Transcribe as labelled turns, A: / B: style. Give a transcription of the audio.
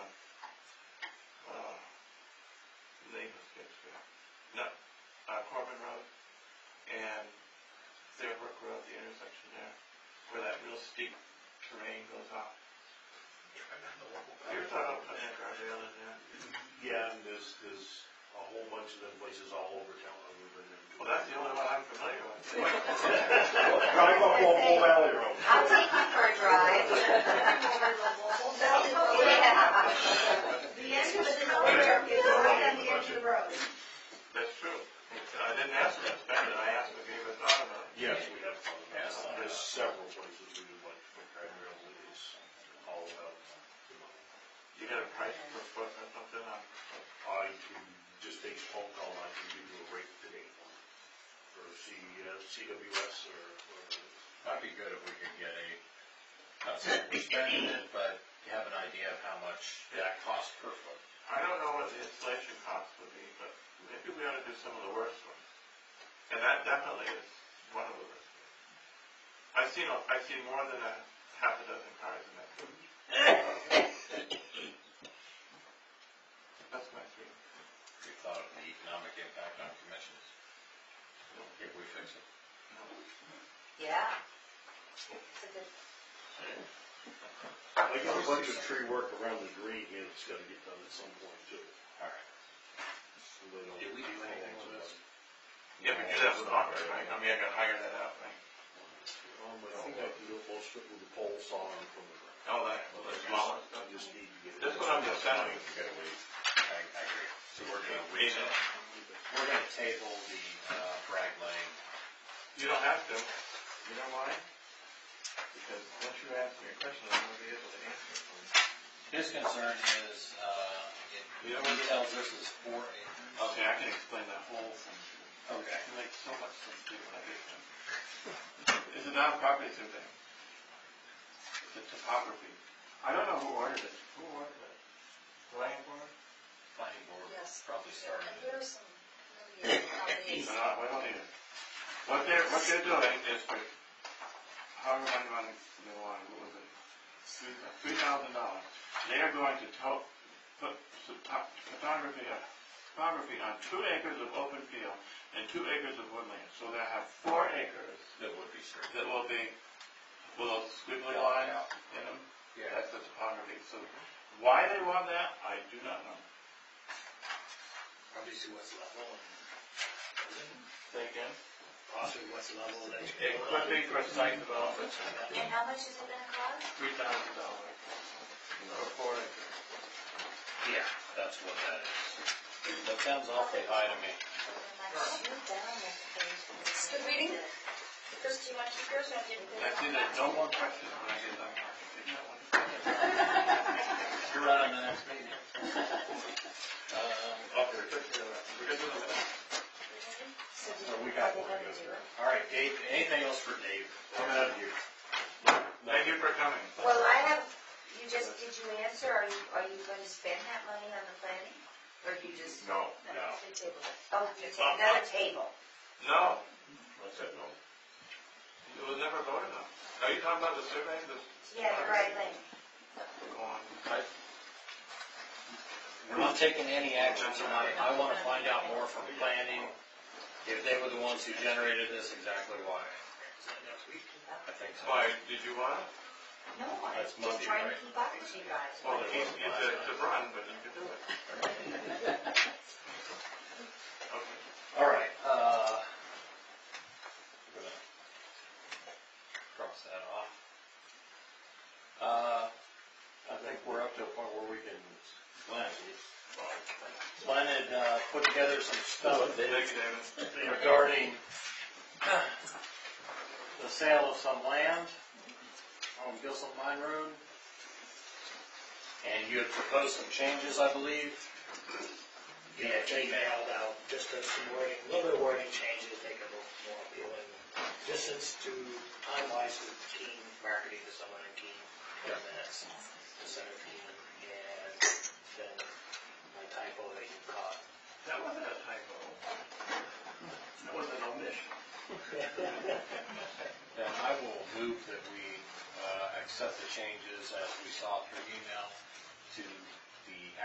A: uh, where that real steep terrain goes up. You're talking about putting that guardrail in there.
B: Yeah, and there's, there's a whole bunch of them places all over town that we've been in.
A: Well, that's the only one I'm familiar with.
B: Drive up Wall Valley Road.
C: I'll take you for a drive.
D: The end of the elevator is right on the edge of the road.
A: That's true. I didn't ask him to spend it, I asked him if he ever thought about it.
B: Yes, we have, some. there's several places we do like, for guardrails, it is all about.
A: You got a price per foot or something on,
B: I can just take a phone call, I can give you a rate today, for C, uh, CWS or, or,
E: That'd be good if we could get a, not saying we're spending it, but you have an idea of how much that costs per foot.
A: I don't know what the installation cost would be, but maybe we ought to do some of the worst ones. And that definitely is one of the worst. ones. I've seen, a- I've seen more than a half a dozen cars in that. village. That's my feeling.
E: We thought of the economic impact on commissions. If we fix it.
C: Yeah. It's a good
B: I got a bunch of tree work around the green here that's gotta get done at some point too.
E: Alright.
B: So they don't-
E: Did we do anything with this?
A: Yeah, we do that with Lockwood, right? I mean, I can hire that out, right?
B: Um, I think I can do a full strip with the pole saw and from the ground.
A: Oh, that, the smaller
B: I
A: stuff.
B: just need to get. it-
A: That's what I'm just saying.
E: We gotta wait. I, I agree. So we're gonna wait,
A: Reason.
E: we're gonna table the, uh, Bragg Lane.
A: You don't have to. You know why? Because once you ask me a question, I'm gonna be able to answer it for you.
E: His concern is, uh, it, he
A: You know what?
E: tells us it's four acres.
A: Okay, I can explain that whole thing.
E: Okay.
A: It makes so much sense to me when I get them. It's a non-property survey. The topography. I don't know who ordered it. Who ordered it? Land board?
E: Planning board
C: Yes.
E: probably started
C: And
E: it.
C: here's some, maybe some of these.
A: No, I don't need it. What they're, what they're doing is, for- however many money they want, what was it? Three thousand dollars. They are going to to, put some top- photography, uh, photography on two acres of open field and two acres of woodland. So they have four acres
E: That would be straight.
A: that will be, with those squiggly lines in them.
E: Yeah.
A: That's the topography. So why they want that, I do not know.
F: Probably see what's level, and
A: Say again?
F: possibly what's level that you.
A: It could be for site development,
C: And how much is it gonna cost?
A: three thousand dollars for four acres.
E: Yeah, that's what that is. That sounds awfully high to me.
C: Good reading. Chris, do you want to keep yours or do you?
A: I see that no more questions when I get done. Isn't that wonderful?
E: You're right on the next meeting.
A: Uh,
E: Um,
C: So do
E: So
C: you-
E: we got
C: are they
E: one
C: gonna do it?
E: All right, Dave, anything else for Dave?
B: I'm out of here.
A: Thank you for coming.
C: Well, I have, you just, did you answer, are you, are you gonna spend that money on the planning? Or do you just?
B: No.
E: No.
C: You table it. Oh, you ta- another table.
A: No,
B: What's that, no?
A: it was never voted on. Are you talking about the survey, the?
C: Yeah, the right lane.
A: Go on.
E: We're not taking any action tonight. I want to find out more from planning, if they were the ones who generated this, exactly why.
F: Next week.
E: I think so.
A: Why, did you want it?
C: No, I'm
E: That's
C: just
E: Monday,
C: trying to
E: right?
C: keep up with you guys.
A: Well, it's, it's a- it's a run, but you can do it. Okay.
E: All right, uh. I'm gonna Cross that off. Uh, I think we're up to a point where we can, Glenn, Glenn had, uh, put together some stuff that
A: Thank you, David.
E: regarding the sale of some land on Gilson Mine Road. And you had proposed some changes, I believe.
F: Yeah, I emailed out just a- some wording, a little bit of wording changes, make it a little more appealing. Just since to finalize with Keen, marketing to someone in Keen, ten minutes, to Senator Keen, and then my typo that you caught.
A: That wasn't a typo. That was an omission.
E: Then I will move that we uh, accept the changes as we saw through email to